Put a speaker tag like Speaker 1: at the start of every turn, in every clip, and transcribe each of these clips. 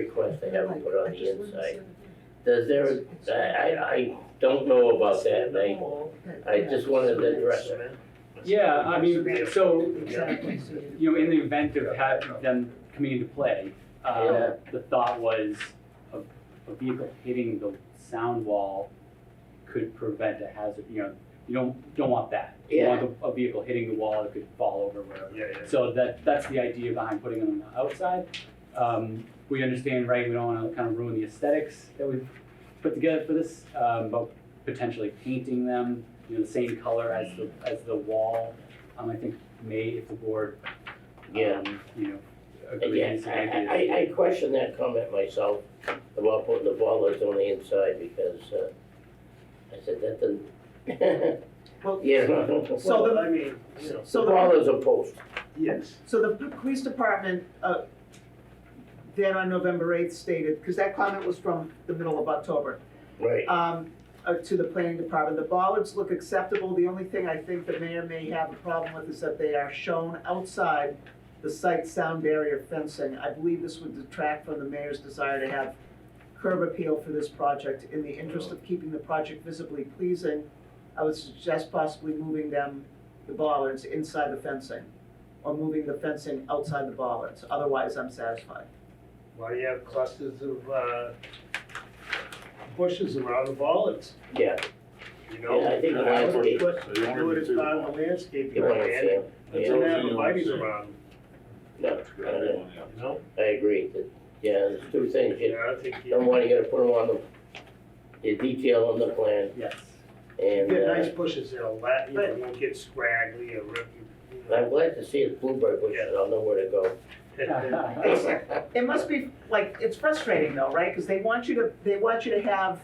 Speaker 1: request they haven't put on the inside. Does there, I, I, I don't know about that, and I, I just wanted to address it.
Speaker 2: Yeah, I mean, so,
Speaker 3: Exactly.
Speaker 2: you know, in the event of having them coming into play, uh,
Speaker 1: Yeah.
Speaker 2: the thought was a, a vehicle hitting the sound wall could prevent a hazard, you know, you don't, don't want that. You want a- a vehicle hitting the wall that could fall over wherever.
Speaker 4: Yeah, yeah.
Speaker 2: So that, that's the idea behind putting them on the outside. Um, we understand, right, we don't wanna kind of ruin the aesthetics that we've put together for this, um, but potentially painting them, you know, the same color as the, as the wall. Um, I think may, if the board,
Speaker 1: Yeah.
Speaker 2: um, you know, agrees.
Speaker 1: Again,
Speaker 2: to
Speaker 1: I,
Speaker 2: maybe
Speaker 1: I, I- I question that comment myself about putting the bollards on the inside because, uh, I said that didn't.
Speaker 3: Well-
Speaker 1: Yeah.
Speaker 3: So
Speaker 4: Well,
Speaker 3: the-
Speaker 4: I mean, you know,
Speaker 3: So
Speaker 1: The
Speaker 3: the,
Speaker 1: bollards are posts.
Speaker 4: yes.
Speaker 3: so the p- police department, uh, then on November eighth stated, because that comment was from the middle of October,
Speaker 1: right,
Speaker 3: um, uh, to the planning department, the bollards look acceptable, the only thing I think the mayor may have a problem with is that they are shown outside the site sound barrier fencing, I believe this would detract from the mayor's desire to have curb appeal for this project, in the interest of keeping the project visibly pleasing, I would suggest possibly moving them, the bollards, inside the fencing, or moving the fencing outside the bollards, otherwise I'm satisfied.
Speaker 4: Why do you have clusters of, uh, bushes around the bollards,
Speaker 1: yeah.
Speaker 4: you know?
Speaker 1: Yeah, I think the
Speaker 4: And I would
Speaker 1: landscape-
Speaker 4: put-
Speaker 5: So you wanna
Speaker 4: Do it
Speaker 5: do
Speaker 4: as
Speaker 5: two
Speaker 4: part of
Speaker 5: walls.
Speaker 4: the landscape,
Speaker 1: You wanna
Speaker 4: plan.
Speaker 1: say,
Speaker 4: You
Speaker 1: yeah,
Speaker 4: don't have
Speaker 5: Yeah.
Speaker 4: the bodies around,
Speaker 1: no, I don't know.
Speaker 4: you know?
Speaker 1: I agree, that, yeah, there's two things, you
Speaker 4: Yeah, I think,
Speaker 1: don't
Speaker 4: you
Speaker 1: want, you gotta put them on the, the detail on the plan,
Speaker 2: Yes.
Speaker 4: you
Speaker 1: and,
Speaker 4: get nice
Speaker 1: uh,
Speaker 4: bushes, that'll la, you know, it won't get scraggly or rip, you
Speaker 1: I'm
Speaker 4: know.
Speaker 1: glad to see it's blueberry bushes, I'll know where to go.
Speaker 3: It must be, like, it's frustrating though, right? Because they want you to, they want you to have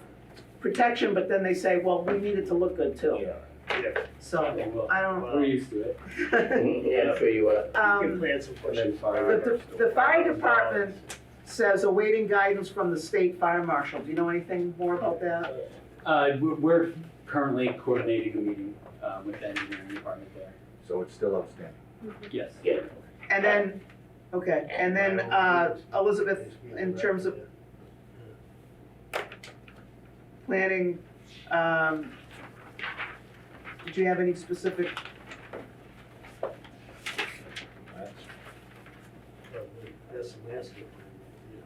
Speaker 3: protection, but then they say, well, we need it to look good too. So,
Speaker 2: Okay, well,
Speaker 3: I don't,
Speaker 2: We're used to it.
Speaker 1: Yeah, I'm sure you are.
Speaker 4: You can
Speaker 3: um,
Speaker 4: plant some bushes.
Speaker 3: the, the- the fire department says awaiting guidance from the state fire marshal. Do you know anything more about that?
Speaker 2: Uh, we're, we're currently coordinating a meeting, uh, with the engineering department there.
Speaker 5: So it's still outstanding.
Speaker 2: Yes.
Speaker 1: Yeah.
Speaker 3: And then, okay, and then, uh, Elizabeth, in terms of planning, um, did you have any specific,
Speaker 4: That's the landscape.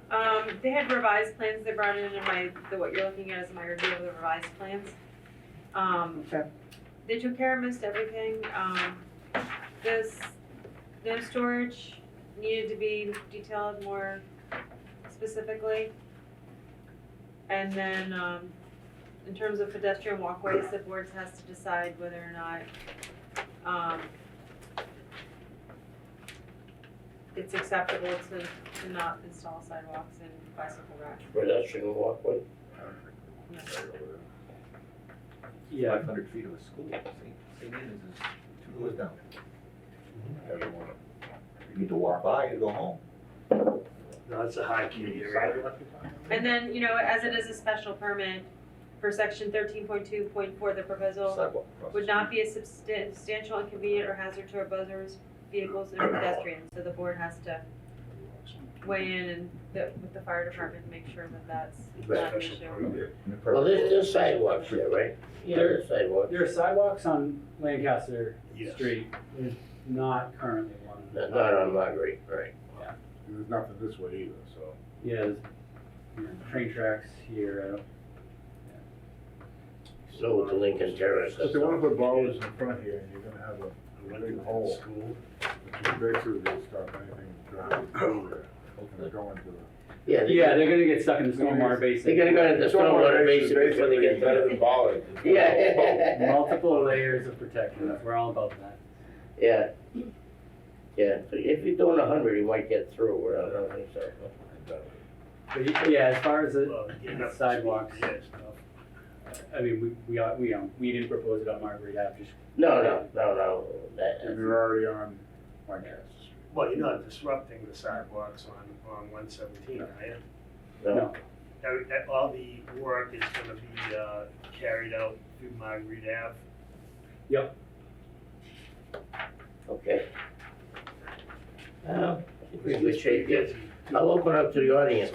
Speaker 6: Um, they had revised plans, they brought in in my, the, what you're looking at is my review of the revised plans. Um,
Speaker 3: okay,
Speaker 6: they took care of most everything, um, this, no storage needed to be detailed more specifically. And then, um, in terms of pedestrian walkways, the board has to decide whether or not, um, it's acceptable to, to not install sidewalks and bicycle racks.
Speaker 1: Pedestrian walkway,
Speaker 2: Yeah,
Speaker 5: Five hundred feet of a school, St. St. Anne's is two doors down.
Speaker 7: Mm-hmm.
Speaker 5: Everyone, you need to walk by, you go home.
Speaker 4: No, it's a high key area.
Speaker 6: And then, you know, as it is a special permit for section thirteen point two point four, the proposal
Speaker 5: Sidewalk across the
Speaker 6: would not be a substan- substantial inconvenience or hazard to our buzzers, vehicles, or pedestrians, so the board has to weigh in and the, with the fire department, make sure that that's not an
Speaker 4: Special
Speaker 6: issue.
Speaker 4: permit.
Speaker 5: street. And the
Speaker 1: well, there's,
Speaker 5: purple-
Speaker 1: there's sidewalks there, right? Yeah, there's sidewalks,
Speaker 2: There are sidewalks on Lancaster
Speaker 4: Yes.
Speaker 2: Street, there's not currently one.
Speaker 1: No, not on Marguerite, right,
Speaker 7: There's nothing this way either, so.
Speaker 2: Yeah, there's, you know, train tracks here, I don't
Speaker 1: so with the Lincoln Terrace.
Speaker 7: But they wanna put bollards in front here, and you're gonna have a, Big hole.
Speaker 4: School.
Speaker 7: which is basically gonna stop anything driving through there, and it's going to the.
Speaker 1: Yeah, they-
Speaker 2: Yeah, they're gonna get stuck in the stormwater
Speaker 1: They
Speaker 2: basin.
Speaker 1: gotta go into the stormwater basin before they get
Speaker 7: Better
Speaker 1: there.
Speaker 7: than bollards.
Speaker 1: Yeah,
Speaker 2: Multiple layers of protection, we're all about that.
Speaker 1: yeah. Yeah, so if you're doing a hundred, you might get through, or I don't think so.
Speaker 2: But y- yeah, as far as, the-
Speaker 4: Well, you know,
Speaker 2: Sidewalks.
Speaker 4: uh, Yeah, stuff.
Speaker 2: I mean, we, we, are- we, um, we didn't propose it on Marguerite Ave, just
Speaker 1: No, no, no, no, that,
Speaker 7: And you're already on Lancaster Street.
Speaker 4: Well, you're not disrupting the sidewalks on, on one seventeen, are you?
Speaker 1: no,
Speaker 4: Every- that- All the work is gonna be, uh, carried out through Margaret Ave.
Speaker 1: okay. Uh, I think we're in good shape here. I'll open up to the audience.